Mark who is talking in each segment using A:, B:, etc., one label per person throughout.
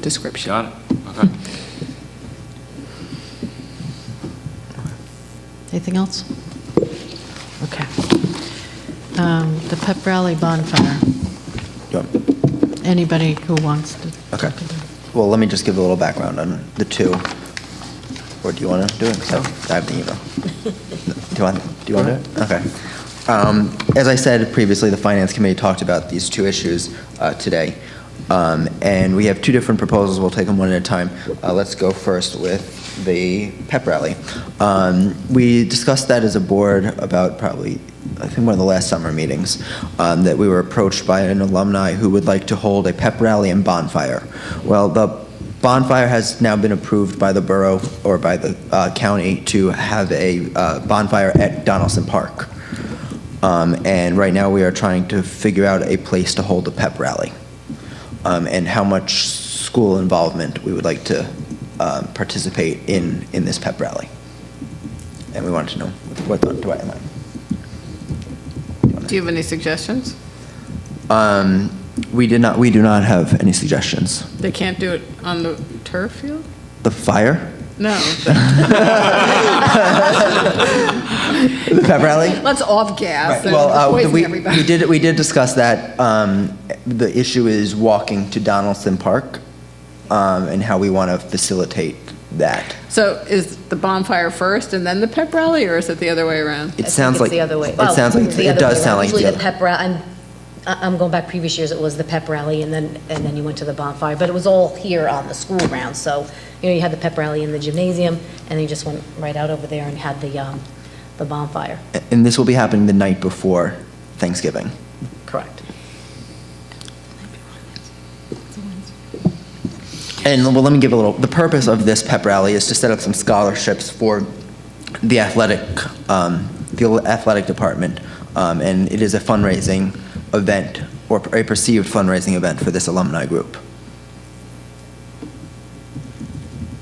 A: description.
B: Got it? Okay.
C: Anything else? Okay. Um, The pep rally bonfire,
D: Yeah.
C: anybody who wants to.
D: Okay. Well, let me just give a little background on the two. Or do you want to do it? 'Cause I I have the email. Do you want, do you want to do it? Okay. Um, As I said previously, the Finance Committee talked about these two issues uh, today. Um, And we have two different proposals. We'll take them one at a time. Uh, Let's go first with the pep rally. Um, We discussed that as a board about probably, I think, one of the last summer meetings, um, that we were approached by an alumni who would like to hold a pep rally and bonfire. Well, the Bonfire has now been approved by the borough or by the uh, county to have a uh, bonfire at Donaldson Park. Um, And right now, we are trying to figure out a place to hold the pep rally um, and how much school involvement we would like to um, participate in, in this pep rally. And we wanted to know what thought Dwight and I.
E: Do you have any suggestions?
D: Um, We did not, we do not have any suggestions.
E: They can't do it on the turf field?
D: The fire?
E: No.
D: The pep rally?
E: Let's off gas
D: Right,
E: and
D: well, uh,
E: poison
D: we-
E: everybody.
D: We did, we did discuss that. Um, The issue is walking to Donaldson Park um, and how we want to facilitate that.
E: So is the bonfire first and then the pep rally, or is it the other way around?
D: It sounds like.
F: It's the other way.
D: It sounds like, it does sound like the
F: Usually the
D: other.
F: pep rally, I'm, I- I'm going back previous years, it was the pep rally, and then, and then you went to the bonfire, but it was all here on the school grounds, so, you know, you had the pep rally in the gymnasium, and then you just went right out over there and had the, um, the bonfire.
D: And this will be happening the night before Thanksgiving.
F: Correct.
D: And well, let me give a little, the purpose of this pep rally is to set up some scholarships for the athletic, um, the athletic department. Um, and it is a fundraising event or a perceived fundraising event for this alumni group.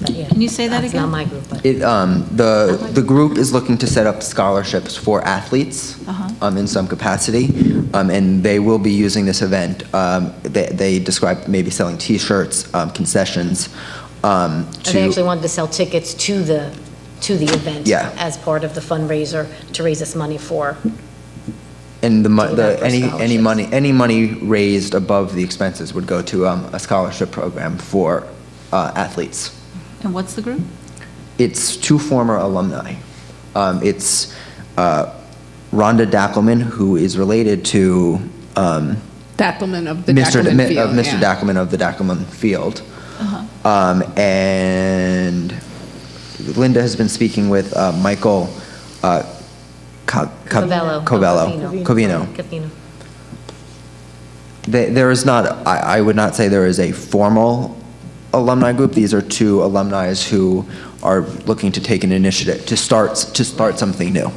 F: Can
C: you say that
F: It's not
C: again?
F: my group, but.
D: It, um, the, the group is looking to set up scholarships for athletes
F: Uh-huh.
D: um, in some capacity, um, and they will be using this event. Um, They, they describe maybe selling T-shirts, um, concessions, um,
F: And they actually
D: to,
F: wanted to sell tickets to the, to the event.
D: Yeah.
F: As part of the fundraiser to raise this money for,
D: and the, mo-
F: Do
D: the,
F: that for
D: any, any
F: scholarships.
D: money, any money raised above the expenses would go to um, a scholarship program for uh, athletes.
G: And what's the group?
D: It's two former alumni. Um, It's uh, Rhonda Dackelman, who is related to um,
E: Dackelman of the
D: Mr.
E: Dackelman
D: Mi-
E: Field.
D: Of Mr.
E: yeah.
D: Dackelman of the Dackelman Field. Um, And Linda has been speaking with uh, Michael uh, Co- Co-
F: Covello.
D: Covello. Covino.
F: Covino.
D: They- There is not, I I would not say there is a formal alumni group. These are two alumni who are looking to take an initiative, to start, to start something new,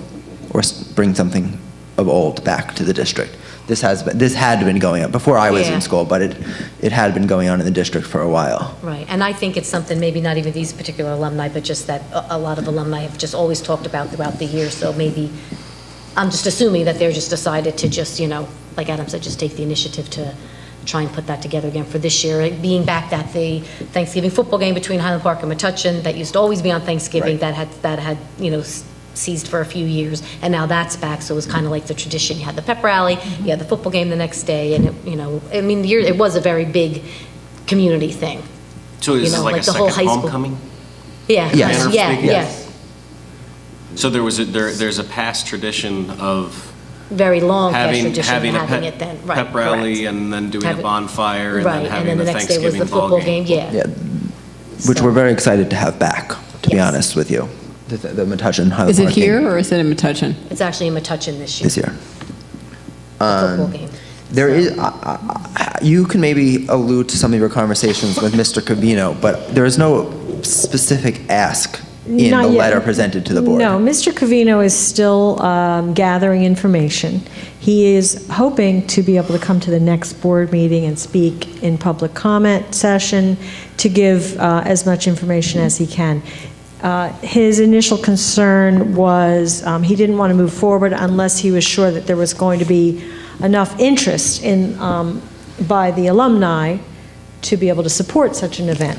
D: or s- bring something of old back to the district. This has, been- this had been going on before I was
F: Yeah.
D: in school, but it, it had been going on in the district for a while.
F: Right, and I think it's something, maybe not even these particular alumni, but just that a a lot of alumni have just always talked about throughout the year, so maybe, I'm just assuming that they're just decided to just, you know, like Adam said, just take the initiative to try and put that together again for this year, It being back that the Thanksgiving football game between Highland Park and Metuchen, that used to always be on Thanksgiving,
D: Right.
F: that had, that had, you know, s- ceased for a few years, and now that's back, so it was kind of like the tradition, you had the pep rally, you had the football game the next day, and, it you know, I mean, the year- it was a very big community thing.
B: So this
F: You
B: is
F: know,
B: like a
F: like the whole
B: second
F: high school.
B: homecoming?
F: Yeah,
D: Yes.
F: kind of, yeah,
B: Manner of
F: yeah.
B: So there was, a there, there's a past tradition of
F: Very long past
B: having,
F: tradition,
B: having a
F: having it
B: pep
F: then, right,
B: pep rally
F: correct.
B: and then doing a
F: Having-
B: bonfire and then
F: Right, and
B: having
F: then
B: the
F: the next day was
B: Thanksgiving
F: the
B: ball
F: football
B: game.
F: game, yeah.
D: Yeah, which
F: So-
D: we're very excited to have back, to be
F: Yes.
D: honest with you. The- The the Metuchen Highland
E: Is it
D: Park game
E: here or is it in Metuchen?
F: It's actually in Metuchen this year,
D: This year.
F: the football game.
D: There is, I- I- I- you can maybe allude to some of your conversations with Mr. Covino, but there is no specific ask in
H: Not
D: the
H: yet.
D: letter presented to the board.
H: No, Mr. Covino is still um, gathering information. He is hoping to be able to come to the next board meeting and speak in public comment session to give uh, as much information as he can. Uh, His initial concern was, um, he didn't want to move forward unless he was sure that there was going to be enough interest in, um, by the alumni to be able to support such an event.